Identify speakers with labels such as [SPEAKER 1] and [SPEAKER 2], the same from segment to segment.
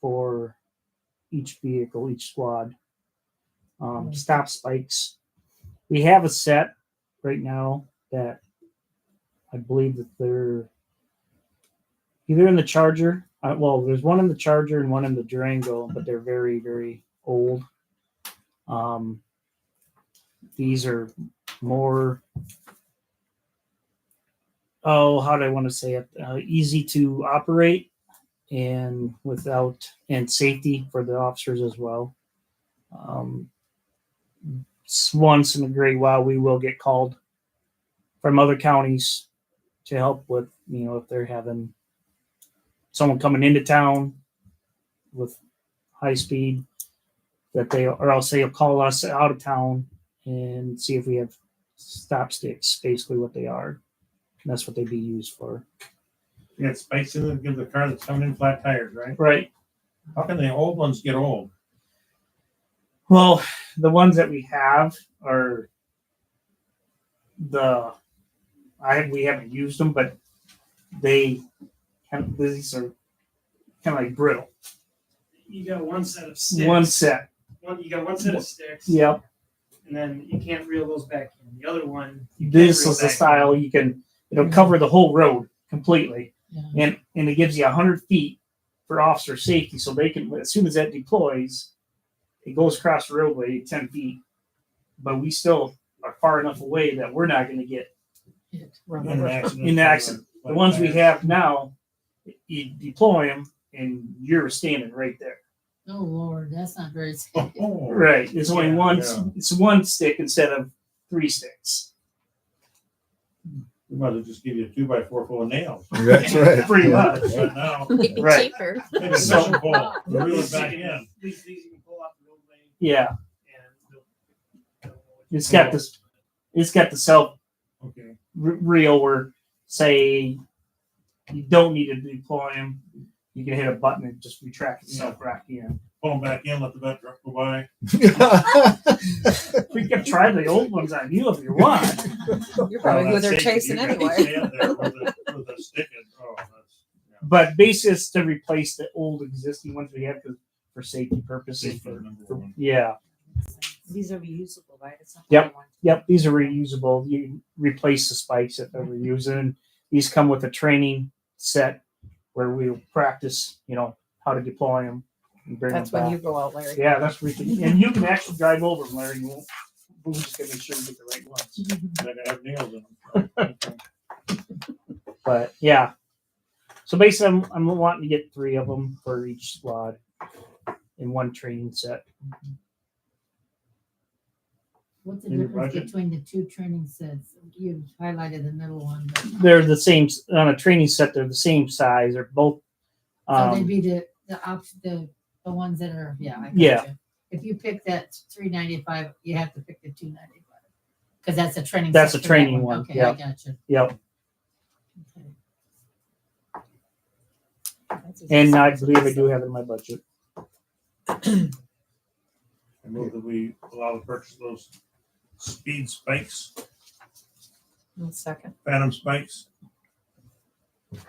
[SPEAKER 1] for each vehicle, each squad. Um, stop spikes. We have a set right now that I believe that they're either in the Charger. Uh, well, there's one in the Charger and one in the Durango, but they're very, very old. Um, these are more. Oh, how do I want to say it? Uh, easy to operate and without and safety for the officers as well. Um, s- once in a great while, we will get called from other counties to help with you know if they're having someone coming into town with high speed that they or else they'll call us out of town and see if we have stop sticks basically what they are And that's what they'd be used for
[SPEAKER 2] You got spikes in it, give the car that's coming in flat tires, right?
[SPEAKER 1] right
[SPEAKER 2] How can the old ones get old?
[SPEAKER 1] Well, the ones that we have are the I we haven't used them, but they kind of these are kind of like brittle.
[SPEAKER 3] You got one set of sticks.
[SPEAKER 1] One set.
[SPEAKER 3] One- you got one set of sticks.
[SPEAKER 1] Yep.
[SPEAKER 3] And then you can't reel those back in. The other one, you can't
[SPEAKER 1] This
[SPEAKER 3] reel
[SPEAKER 1] is the
[SPEAKER 3] back in.
[SPEAKER 1] style you can it'll cover the whole road completely.
[SPEAKER 4] Yeah.
[SPEAKER 3] Mm-hmm.
[SPEAKER 1] And and it gives you hundred feet for officer safety. So they can as soon as that deploys, it goes across the roadway ten feet. But we still are far enough away that we're not gonna get
[SPEAKER 4] It-
[SPEAKER 2] In
[SPEAKER 4] right.
[SPEAKER 2] an accident.
[SPEAKER 1] In the accident. The ones we have now, you deploy them and you're standing right there.
[SPEAKER 4] Oh Lord, that's not very safe.
[SPEAKER 2] Oh,
[SPEAKER 1] Right. It's only
[SPEAKER 2] Yeah,
[SPEAKER 1] one,
[SPEAKER 2] yeah.
[SPEAKER 1] it's one stick instead of three sticks.
[SPEAKER 2] we might as well just give you a two by four full of nails.
[SPEAKER 5] That's right.
[SPEAKER 1] Pretty
[SPEAKER 2] Yeah,
[SPEAKER 1] much.
[SPEAKER 2] Right now,
[SPEAKER 4] It'd be
[SPEAKER 1] Right.
[SPEAKER 4] cheaper.
[SPEAKER 2] take a fishing pole, reel it
[SPEAKER 3] These
[SPEAKER 2] back
[SPEAKER 3] you
[SPEAKER 2] in.
[SPEAKER 3] can- These, these you can pull off the roadway
[SPEAKER 1] Yeah.
[SPEAKER 3] and they'll- they'll.
[SPEAKER 1] It's got this, it's got the self
[SPEAKER 2] Okay,
[SPEAKER 1] re- reel where say you don't need to deploy them. You can hit a button and just retract itself right in.
[SPEAKER 2] pull them back in, let the vet truck go by.
[SPEAKER 1] We can try the old ones on you if you want.
[SPEAKER 6] You're probably
[SPEAKER 2] Well,
[SPEAKER 6] who
[SPEAKER 2] that's
[SPEAKER 6] they're
[SPEAKER 2] safe, but you
[SPEAKER 6] chasing
[SPEAKER 2] got to
[SPEAKER 6] anyway.
[SPEAKER 2] stand there With a- with a stick and, oh, that's, yeah.
[SPEAKER 1] But basically it's to replace the old existing ones we have for, for safety purposes.
[SPEAKER 2] Safety
[SPEAKER 1] for-
[SPEAKER 2] number
[SPEAKER 1] for,
[SPEAKER 2] one.
[SPEAKER 1] yeah.
[SPEAKER 6] These are reusable, right? It's not
[SPEAKER 1] Yep.
[SPEAKER 6] the one-
[SPEAKER 1] Yep, these are reusable. You replace the spikes that they were using. These come with a training set where we'll practice, you know, how to deploy them and bring
[SPEAKER 6] That's
[SPEAKER 1] them
[SPEAKER 6] when
[SPEAKER 1] back.
[SPEAKER 6] you go out, Larry.
[SPEAKER 1] yeah, that's where you can, and you can actually drive over them, Larry. You won't, we're just gonna make sure we get the right ones.
[SPEAKER 2] They're gonna have nails in them. Okay.
[SPEAKER 1] But yeah, so basically, I'm, I'm wanting to get three of them for each squad in one training set.
[SPEAKER 4] What's the
[SPEAKER 2] In your
[SPEAKER 4] difference
[SPEAKER 2] budget?
[SPEAKER 4] between the two training sets? You highlighted the middle one, but
[SPEAKER 1] They're the same s- on a training set. They're the same size. They're both.
[SPEAKER 4] so
[SPEAKER 6] Oh,
[SPEAKER 4] they'd
[SPEAKER 1] Um,
[SPEAKER 4] be the, the op, the, the ones that are, yeah. I got
[SPEAKER 1] Yeah.
[SPEAKER 4] you. If you pick that three ninety-five, you have to pick the two ninety-five. Cause that's a training.
[SPEAKER 1] That's
[SPEAKER 4] set
[SPEAKER 1] a
[SPEAKER 4] for that
[SPEAKER 1] training one,
[SPEAKER 4] Okay, I
[SPEAKER 1] yeah.
[SPEAKER 4] got you.
[SPEAKER 1] yep,
[SPEAKER 4] Okay.
[SPEAKER 6] That's a-
[SPEAKER 1] and I believe I do have it in my budget.
[SPEAKER 2] I move that we allow the purchase of those speed spikes,
[SPEAKER 6] One second.
[SPEAKER 2] phantom spikes.
[SPEAKER 6] As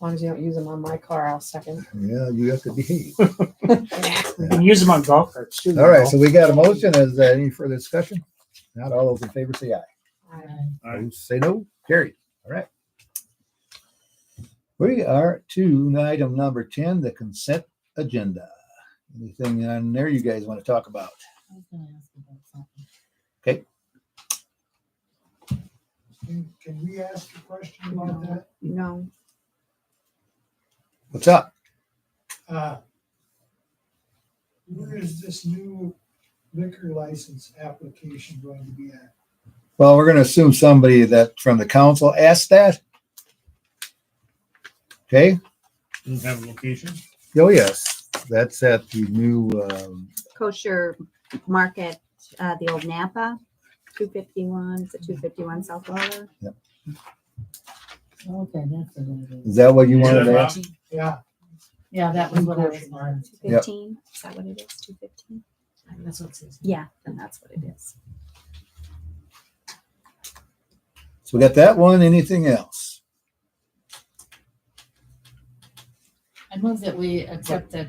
[SPEAKER 6] long as you don't use them on my car, I'll second.
[SPEAKER 5] Yeah, you have to behave.
[SPEAKER 1] You can use them on golf carts too. you
[SPEAKER 5] All right,
[SPEAKER 1] know.
[SPEAKER 5] so we got a motion. Is there any further discussion? Not all those in favor say aye.
[SPEAKER 6] I-
[SPEAKER 2] Aye.
[SPEAKER 5] Those Say no, carried. All right. We are to item number ten, the consent agenda. Anything on there you guys want to talk about?
[SPEAKER 4] I was gonna ask about something.
[SPEAKER 5] Okay.
[SPEAKER 7] Can, can we ask a question about that?
[SPEAKER 6] No.
[SPEAKER 5] What's up?
[SPEAKER 7] Uh, Where is this new liquor license application going to be at?
[SPEAKER 5] Well, we're gonna assume somebody that from the council asked that. Okay,
[SPEAKER 2] Doesn't have a location.
[SPEAKER 5] oh yes, that's at the new, um,
[SPEAKER 8] kosher market, uh, the old Napa, two fifty-one, it's a two fifty-one South Water.
[SPEAKER 4] Okay, that's what it is.
[SPEAKER 5] is that what you
[SPEAKER 2] Yeah,
[SPEAKER 5] wanted to
[SPEAKER 2] Rob.
[SPEAKER 5] ask?
[SPEAKER 7] Yeah,
[SPEAKER 4] Yeah, that was what I was. wondering.
[SPEAKER 8] Two
[SPEAKER 5] Yep.
[SPEAKER 8] fifteen, is that what it is, two fifteen?
[SPEAKER 4] That's what it says.
[SPEAKER 8] Yeah, then that's what it is.
[SPEAKER 5] So we got that one, anything else?
[SPEAKER 4] I move that we accept the